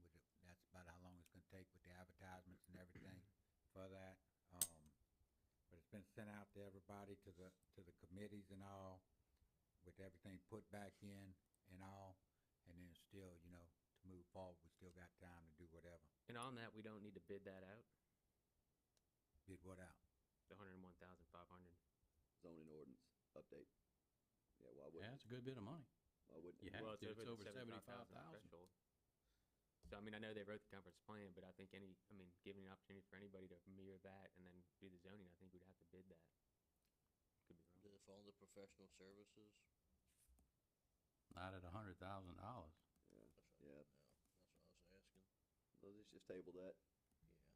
for that. Um, but it's been sent out to everybody, to the, to the committees and all, with everything put back in and all. And then still, you know, to move forward, we still got time to do whatever, And on that, we don't need to bid that out, bid what out. the hundred and one thousand five hundred. zoning ordinance update. Yeah, why Yeah, wouldn't, it's a good bit of money. why wouldn't? You have Well, to, it's over over the seventy-five 75,000 thousand. threshold. So, I mean, I know they wrote the conference plan, but I think any, I mean, giving an opportunity for anybody to mirror that and then do the zoning, I think we'd have to bid that. Could be wrong. If all the professional services. Not at a hundred thousand dollars. Yeah, Yeah, that's what I was asking. let's just- just table that,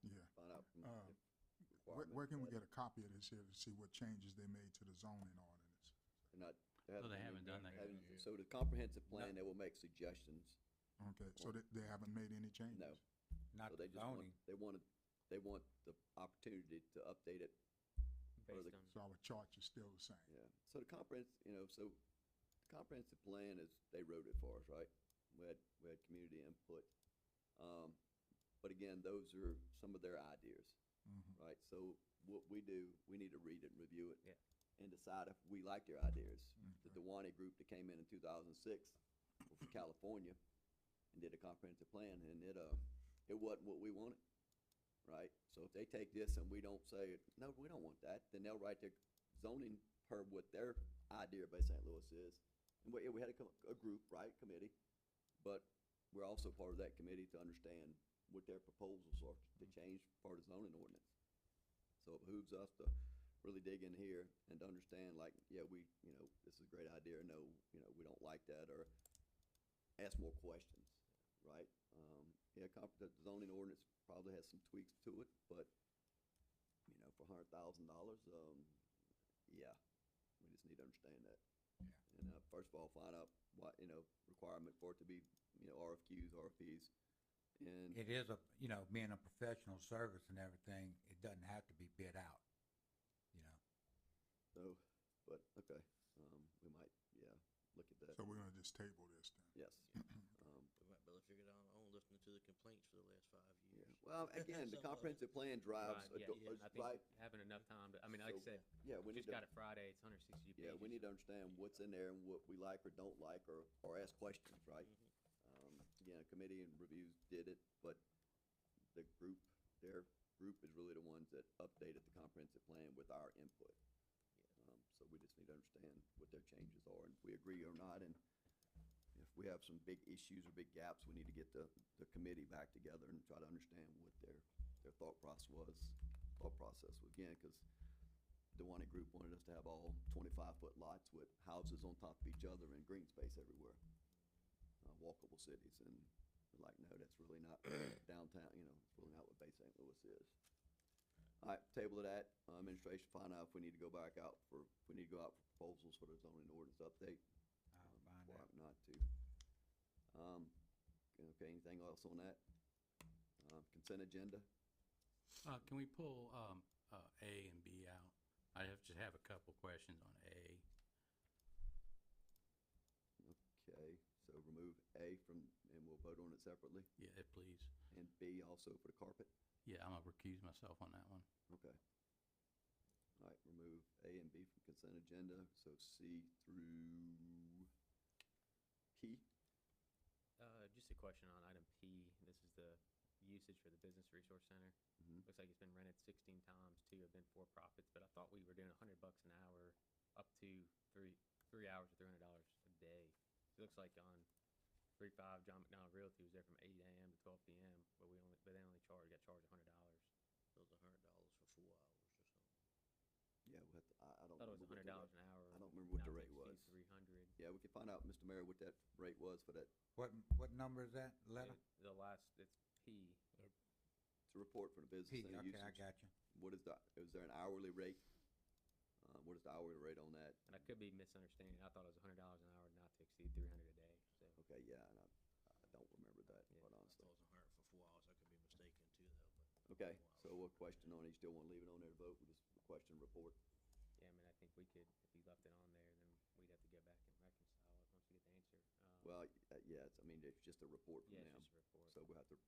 Yeah. Yeah. find out. from- Uh, if Where, where requirements can we that get a copy of this here to see what changes they made to the zoning ordinance? They're not. So they haven't done that. yet. haven't- So the comprehensive plan, they will make suggestions. Okay, so they, they haven't made any changes? No. Not So the they just want, zoning, they want, to- they want the opportunity to update it, Or Based the- on, So our charts is still the same? yeah. So the comprehensive, you know, so the comprehensive plan is, they wrote it for us, right? We had, we had community input. Um, But again, those are some of their ideas. Mhm. right? So what we do, we need to read it and review it. Yeah. And decide if we like their ideas. The Okay. Dewaney group that came in in two thousand and six from California and did a comprehensive plan and it, uh, it wasn't what we wanted, right? So if they take this and we don't say, no, we don't want that, then they'll write their zoning per what their idea by St. Louis is. And we, we had a, co- a group, right, committee, but we're also part of that committee to understand what their proposals are to change part of zoning ordinance. So it behooves us to really dig in here and to understand like, yeah, we, you know, this is a great idea, or no, you know, we don't like that, or ask more questions, right? Um, yeah, comp, the zoning ordinance probably has some tweaks to it, but, you know, for a hundred thousand dollars, um, yeah, we just need to understand that. Yeah. And, uh, first of all, find out what, you know, requirement for it to be, you know, RFQs, RFPs, and. it is a, you know, being a professional service and everything, it doesn't have to be bid out, you know. So, but, okay, um, we might, yeah, look at that, So we're gonna just table this then? yes. Um, Well, if you're going on listening to the complaints for the last five yeah. years. Well, again, the So, uh, comprehensive plan drives, Right, a yeah, do- yeah, a- I right, think having enough time, to I mean, like I So, said, yeah, we we need just to, got it Friday, it's hundred sixty pages. yeah, we need to understand what's in there and what we like or don't like, or, or ask questions, right? Um, again, a committee and reviews did it, but the group, their group is really the ones that updated the comprehensive plan with our input. Um, so we just need to understand what their changes are, and if we agree or not, and if we have some big issues or big gaps, we need to get the, the committee back together and try to understand what their, their thought process was, thought process was, again, cause Dewaney Group wanted us to have all twenty-five foot lots with houses on top of each other and green space everywhere. Uh, walkable cities, and we're like, no, that's really not downtown, you know, it's really not what Bay St. Louis is. Alright, table of that, uh, administration find out if we need to go back out for, if we need to go out for proposals for the zoning ordinance update, I'll um, find why out. Not to. Um, okay, anything else on that? Um, consent agenda, Uh, can we pull, um, uh, A and B out? I have, just have a couple questions on A. okay, so remove A from, and we'll vote on it separately, Yeah, if please. and B also for the carpet, Yeah, I'm gonna recuse myself on that one. okay. Alright, remove A and B from consent agenda, so C through P, Uh, just a question on item P, this is the usage for the Business Resource Center. Mhm. Looks like it's been rented sixteen times, two have been for profits, but I thought we were doing a hundred bucks an hour up to three, three hours or three hundred dollars a day. So It looks like on three five, John McDonald Realty was there from eight AM to twelve PM, but we only, but they only charged, got charged a hundred dollars. It was a hundred dollars for four hours or something. yeah, we have to, I, I don't. Thought it was a remember what hundred the dollars rate- an hour. I don't remember what the rate was, Three hundred. yeah, we could find out, Mr. Mayor, what that rate was for that, What, what number is that letter? The last, it's P, to report for the business P, center usage. okay, I got you. What is the, is there an hourly rate? Uh, what is the hourly rate on that? and I could be misunderstanding, I thought it was a hundred dollars an hour not to exceed three hundred a day, so. Okay, yeah, and I, I don't remember that, Yeah, quite I honestly. thought it was a hundred for four hours. I could be mistaken too, though, but. Okay, four so hours. what question on it, you still wanna leave it on there to vote, we'll just question report? Yeah, I mean, I think we could, if we left it on there, then we'd have to go back and reconcile it once we get the answer. Um, Well, y- uh, yeah, it's, I mean, it's just a report from Yeah, them, it's just a report. so we'll have to